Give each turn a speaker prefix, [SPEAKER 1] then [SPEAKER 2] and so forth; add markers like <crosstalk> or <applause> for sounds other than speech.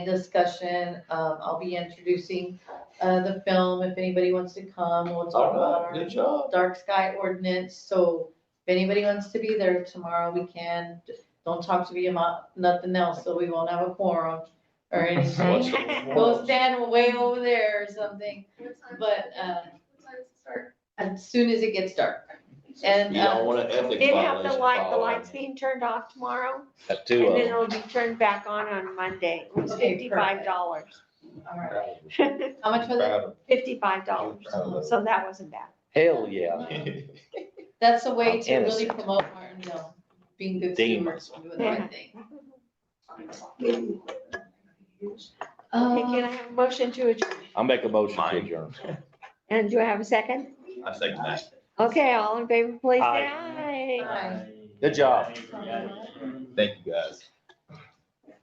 [SPEAKER 1] discussion. Um, I'll be introducing, uh, the film if anybody wants to come. We'll talk about
[SPEAKER 2] All right,
[SPEAKER 1] our
[SPEAKER 2] good job.
[SPEAKER 1] dark sky ordinance. So if anybody wants to be there tomorrow, we can. Don't talk to me about nothing else, so we won't have a quorum
[SPEAKER 2] <laughs>
[SPEAKER 1] or
[SPEAKER 2] What's
[SPEAKER 1] anything.
[SPEAKER 3] <laughs>
[SPEAKER 2] your
[SPEAKER 1] Go
[SPEAKER 2] performance?
[SPEAKER 1] stand way over there or something But, uh, as soon as it gets dark. And,
[SPEAKER 2] You don't
[SPEAKER 1] uh,
[SPEAKER 2] want an ethics
[SPEAKER 3] Then have
[SPEAKER 2] violation.
[SPEAKER 3] the light, the
[SPEAKER 2] filed.
[SPEAKER 3] lights being turned off tomorrow,
[SPEAKER 4] Got
[SPEAKER 3] and
[SPEAKER 4] two
[SPEAKER 3] then
[SPEAKER 4] of them.
[SPEAKER 3] it'll be turned back on on Monday, it was
[SPEAKER 1] Okay, perfect.
[SPEAKER 3] fifty-five dollars. <laughs>
[SPEAKER 1] all right, how much was it?
[SPEAKER 3] Fifty-five dollars, so that wasn't bad.
[SPEAKER 4] Hell, yeah.
[SPEAKER 1] That's a way
[SPEAKER 4] I'm
[SPEAKER 1] to really
[SPEAKER 4] innocent.
[SPEAKER 1] promote Martinsville, being good
[SPEAKER 4] Dean.
[SPEAKER 1] stewards, doing the right thing.
[SPEAKER 3] Okay, can I
[SPEAKER 1] Um,
[SPEAKER 3] have a motion to adjourn?
[SPEAKER 4] I'll make a motion to
[SPEAKER 2] Mine.
[SPEAKER 4] adjourn.
[SPEAKER 3] And do I have a second?
[SPEAKER 2] <laughs> I think that's.
[SPEAKER 3] Okay, all in favor, please say
[SPEAKER 4] Aye.
[SPEAKER 3] aye.
[SPEAKER 1] Aye.
[SPEAKER 4] Good job.
[SPEAKER 2] Thank you, guys.